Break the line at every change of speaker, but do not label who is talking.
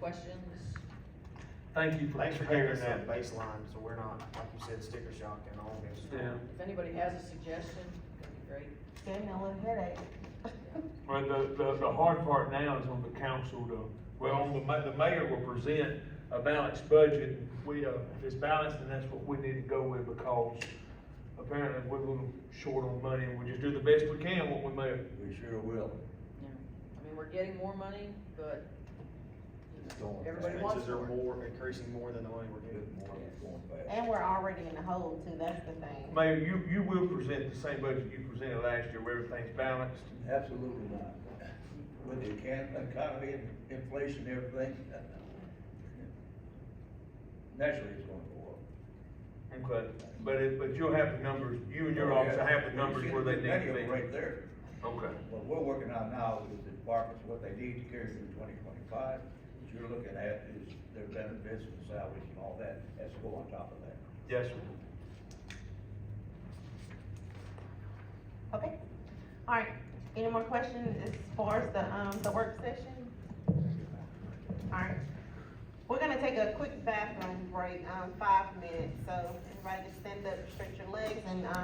questions?
Thank you for
Thanks for
preparing
giving us that
that.
baseline, so we're not, like you said, sticker shock and all this.
Yeah,
If anybody has a suggestion, that'd be great.
Gave me a little headache.
well, the, the, the hard part now is on the council to, well, on the ma- the mayor will present a balanced budget. We, uh, if it's balanced, then that's what we need to go with because apparently we're a little short on money and we just do the best we can what we may.
We sure will.
Yeah. I mean, we're getting more money, but you
It's
know,
going
everybody
fast.
wants
Expenses are
more.
more, increasing more than the money we're
Good
getting.
morning, it's going fast.
And we're already in the hole too, that's the thing.
Mayor, you, you will present the same budget you presented last year where everything's balanced.
Absolutely not. With the can- economy and inflation and everything. Naturally, it's going to go up.
Okay, but it, but you'll have the numbers, you and
Oh,
your office will have the numbers where they
Many of
need to
them Right
be.
there.
Okay.
What we're working on now is the departments, what they need to carry through twenty twenty-five. What you're looking at is their benefits and salaries and all that, that's go on top of that.
Yes, sir.
Okay, all right, any more questions as far as the, um, the work session? All right, we're gonna take a quick bathroom break, um, five minutes, so everybody just stand up, stretch your legs and, um,